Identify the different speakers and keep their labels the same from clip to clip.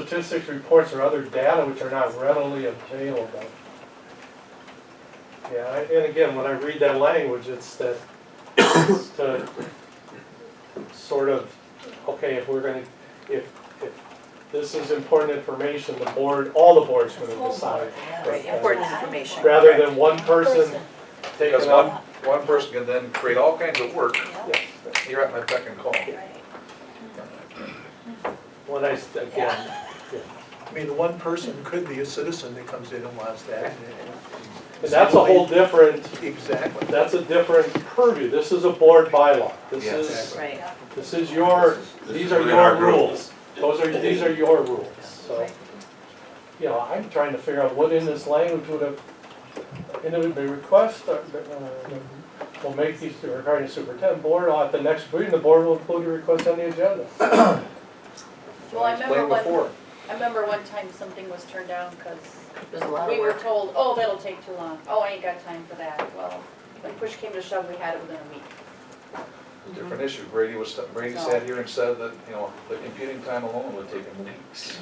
Speaker 1: statistics, reports, or other data which are not readily available. Yeah, I- and again, when I read that language, it's that, it's to sort of, okay, if we're gonna, if, if this is important information, the board, all the board's gonna decide.
Speaker 2: Right, important information.
Speaker 1: Rather than one person taking
Speaker 3: Because one,
Speaker 1: up.
Speaker 3: one person can then create all kinds of work,
Speaker 1: Yeah.
Speaker 3: you're at my beck and call.
Speaker 1: When I, s- again,
Speaker 4: I mean, the one person could be a citizen that comes in and wants that.
Speaker 1: and that's a whole different,
Speaker 4: Exactly.
Speaker 1: that's a different purview, this is a board bylaw, this
Speaker 3: Yeah.
Speaker 1: is,
Speaker 2: Right,
Speaker 1: this is your, these are your rules. Those are, these are your rules, so. You know, I'm trying to figure out what in this language would have, and it would be request, uh, uh, will make these regarding superintendent board, uh, at the next meeting, the board will include a request on the agenda.
Speaker 5: Well, I remember
Speaker 3: Explained
Speaker 5: one,
Speaker 3: before.
Speaker 5: I remember one time something was turned down because
Speaker 2: there's a lot
Speaker 5: we
Speaker 2: of
Speaker 5: were
Speaker 2: work.
Speaker 5: told, oh, that'll take too long. Oh, I ain't got time for that. Well, when push came to shove, we had it within a week. Mhm.
Speaker 3: different issue. Brady was, Brady sat here and said that, you know, the computing time alone would take him weeks.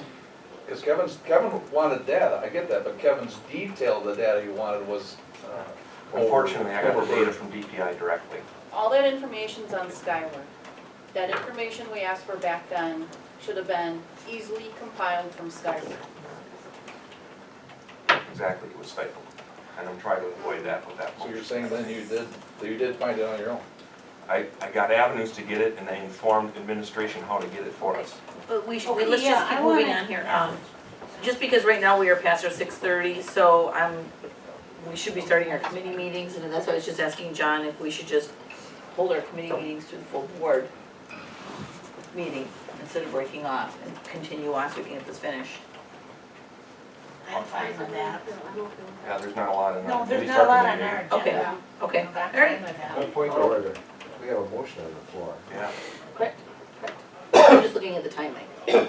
Speaker 3: Because Kevin's, Kevin wanted data, I get that, but Kevin's detail of the data he wanted was, uh.
Speaker 6: Unfortunately, I got the
Speaker 3: overburdened.
Speaker 6: data from DPI directly.
Speaker 5: All that information's on Skyward. That information we asked for back then should have been easily compiled from Skyward.
Speaker 6: Exactly, it was stifled. And I'm trying to avoid that with that
Speaker 3: So you're
Speaker 6: motion.
Speaker 3: saying then you did, that you did find it on your own?
Speaker 6: I, I got avenues to get it and I informed administration how to get it for us.
Speaker 2: But we should,
Speaker 7: Okay,
Speaker 2: let's
Speaker 7: yeah,
Speaker 2: just keep
Speaker 7: I
Speaker 2: moving
Speaker 7: wanna-
Speaker 2: on here. Um, Just because right now we are past our six thirty, so I'm, Um, we should be starting our committee meetings, and that's why I was just asking John if we should just hold our committee meetings to the full board meeting instead of breaking off and continue on so we can get this finished.
Speaker 7: I'm fine with that.
Speaker 6: Yeah, there's not a lot in our.
Speaker 7: No,
Speaker 6: at
Speaker 7: there's
Speaker 6: least
Speaker 7: not a
Speaker 6: our
Speaker 7: lot on
Speaker 6: community.
Speaker 7: our agenda.
Speaker 2: Okay,
Speaker 5: Yeah.
Speaker 2: okay,
Speaker 7: I'm
Speaker 2: all
Speaker 7: fine
Speaker 2: right.
Speaker 7: with that.
Speaker 8: Good point of order. We have a motion on the floor.
Speaker 6: Yeah.
Speaker 2: I'm just looking at the timing.
Speaker 8: You know,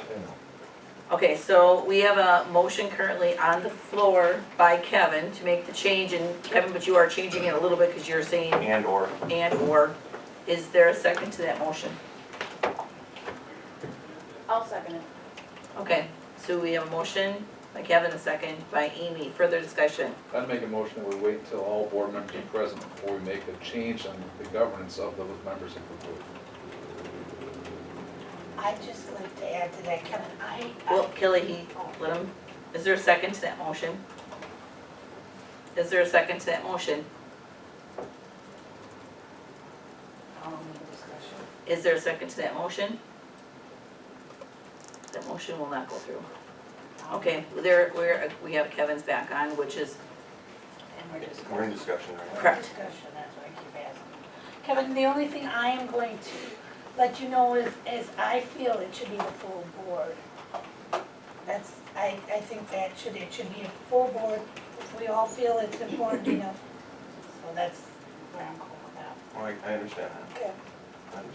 Speaker 2: Okay, so we have a motion currently on the floor by Kevin to make the change, and Kevin, but you are changing it a little bit because you're saying
Speaker 6: And/or
Speaker 2: and/or. Is there a second to that motion?
Speaker 5: I'll second it.
Speaker 2: Okay, so we have a motion by Kevin, a second by Amy. Further discussion?
Speaker 3: I'd make a motion that we wait until all board members are present before we make a change on the governance of those members if we do.
Speaker 7: I'd just like to add to that, Kevin, I,
Speaker 2: Well,
Speaker 7: I,
Speaker 2: Kelly, he, let him, is there a second to that motion? Is there a second to that motion?
Speaker 5: I'll make the discussion.
Speaker 2: Is there a second to that motion? That motion will not go through. Okay, there, we're, we have Kevin's back on, which is
Speaker 7: and we're just.
Speaker 6: we're in discussion right now.
Speaker 2: Correct.
Speaker 7: Discussion, that's why I keep asking. Kevin, the only thing I am going to let you know is, is I feel it should be the full board. That's, I, I think that should, it should be a full board, if we all feel it's important enough. So that's where I'm going with that.
Speaker 6: Well, I, I understand that.
Speaker 7: Okay.
Speaker 6: I understand.